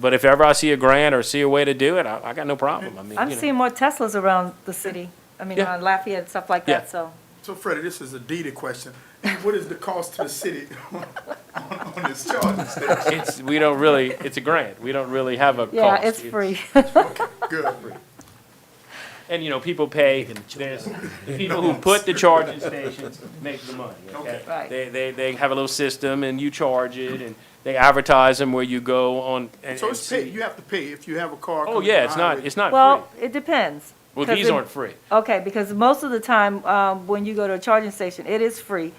But if ever I see a grant or see a way to do it, I, I got no problem. I mean, I'm you know. seeing more Teslas around the city, I mean, Yeah. around Lafayette and stuff like Yeah. that, so. So Freddie, this is a Dita question. What is the cost to the city on, on this charging station? It's, we don't really, it's a grant. We don't really have a cost. Yeah, it's free. Good. And, you know, people pay, there's, the people who put the charging stations make the money, okay? Okay. Right. They, they, they have a little system and you charge it and they advertise them where you go on. and- So and it's see- paid, you have to pay if you have a car. Oh, coming yeah, from it's the not, highway. it's not Well, free. it depends. Well, 'cause these it- aren't free. Okay, because most of the time, um, when you go to a charging station, it is free.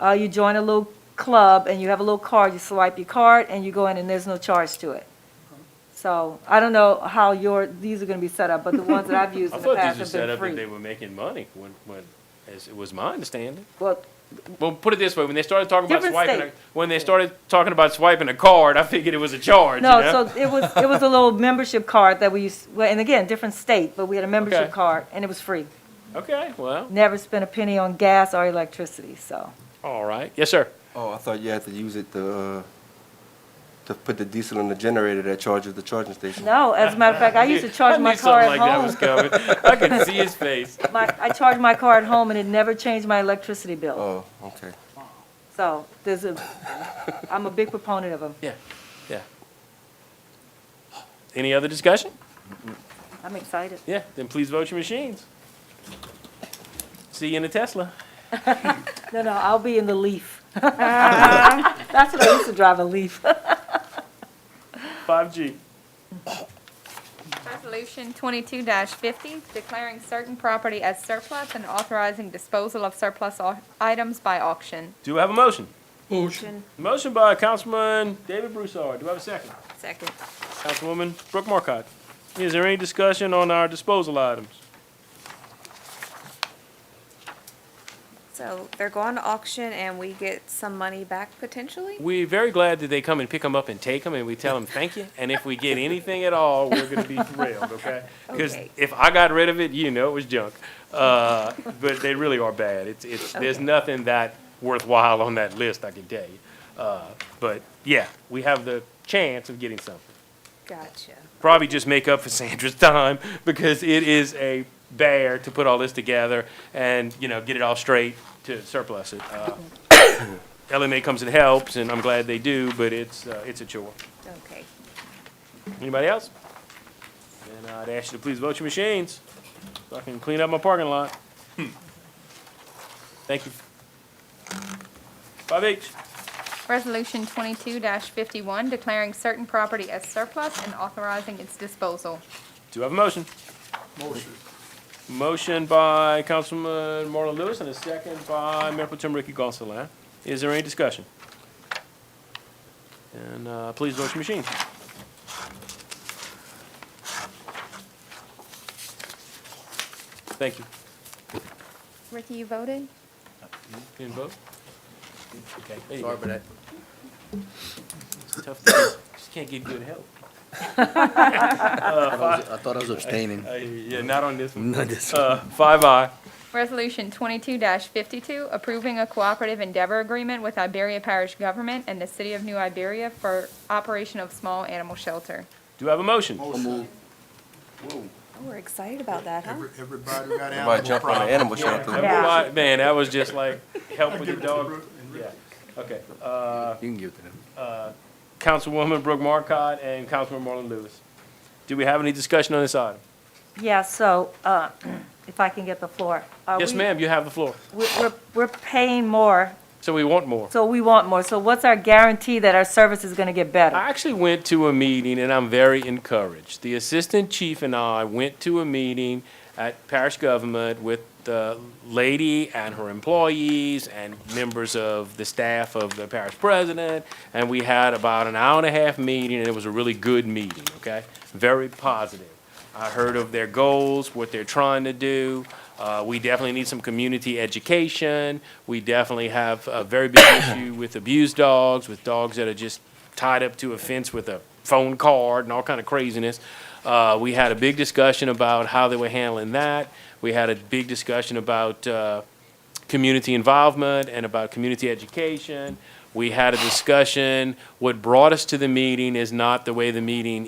Uh, you join a little club and you have a little card, you swipe your card and you go in and there's no charge to it. So I don't know how your, these are gonna be set up, but the ones that I've used I in the thought these past were have set been up that they free. were making money when, when, as it was my understanding. Well, Well, put it this way, when they started talking about Different swiping, a- state. when they started talking about swiping a card, I figured it was a charge, you know? no, so it was, it was a little membership card that we used, well, and again, different state, but we had a Okay. membership card and it was free. Okay, well, Never spent a penny on gas or electricity, so. all right. Yes, sir. Oh, I thought you had to use it to, uh, to put the diesel in the generator that charges the charging station. No, as a matter of fact, I used to charge my knew car at something like that was home. coming. I could see his face. My, I charged my car at home and it never changed my electricity bill. Oh, okay. So there's a, I'm a big proponent of them. Yeah, yeah. Any other discussion? I'm excited. Yeah, then please vote your machines. See you in a Tesla. No, no, I'll be in the Leaf. That's what I used to drive, a Leaf. 5G. Resolution twenty-two fifty, declaring certain property as surplus and authorizing disposal of surplus au- items by auction. Do I have a motion? Motion by Councilman David Broussard. Do I have a second? Second. Councilwoman Brooke Marcotte. Is there any discussion on our disposal items? So they're going to auction and we get some money back potentially? We're very glad that they come and pick them up and take them, and we tell them thank you. And if we get anything at all, we're gonna be thrilled, okay? Because Okay. if I got rid of it, you know it was junk. Uh, but they really are bad. It's, it's, there's Okay. nothing that worthwhile on that list, I can tell you. Uh, but yeah, we have the chance of getting something. Gotcha. Probably just make up for Sandra's time because it is a bear to put all this together and, you know, get it all straight to surplus it. Uh, LMA comes and helps, and I'm glad they do, but it's, uh, it's a chore. Okay. Anybody else? Then I'd ask you to please vote your machines, so I can clean up my parking lot. Thank you. Five H, Resolution twenty-two fifty-one, declaring certain property as surplus and authorizing its disposal. do I have a motion? Motion. Motion by Councilman Marlon Lewis and a second by Mayor Pro Tem Ricky Gonsalas. Is there any discussion? And, uh, please vote your machines. Thank you. Ricky, you voted? Didn't vote? Okay, there you go. Sorry about that. It's tough to do. Just can't get good help. I thought I was- I thought I was abstaining. Uh, yeah, not on this one. Not this. Uh, five I. Resolution twenty-two fifty-two, approving a cooperative endeavor agreement with Iberia Parish Government and the City of New Iberia for operation of small animal shelter. Do I have a motion? Motion. Oh, We're excited about that, huh? Every- Everybody got Everybody animal jump on the problems. animal shelter. Everybody- Man, that was just like, help with Give your it to dog. Brooke and Rick. Yeah, okay. Uh, You can give it to them. Councilwoman Brooke Marcotte and Councilman Marlon Lewis. Do we have any discussion on this item? Yeah, so, uh, if I can get the floor. Uh, Yes, we- ma'am, you have the floor. We're, we're- we're paying more, So we want more. so we want more. So what's our guarantee that our service is gonna get better? I actually went to a meeting and I'm very encouraged. The assistant chief and I went to a meeting at parish government with the lady and her employees and members of the staff of the parish president. And we had about an hour and a half meeting and it was a really good meeting, okay? Very positive. I heard of their goals, what they're trying to do. Uh, we definitely need some community education. We definitely have a very big issue with abused dogs, with dogs that are just tied up to a fence with a phone card and all kind of craziness. Uh, we had a big discussion about how they were handling that. We had a big discussion about, uh, community involvement and about community education. We had a discussion. What brought us to the meeting is not the way the meeting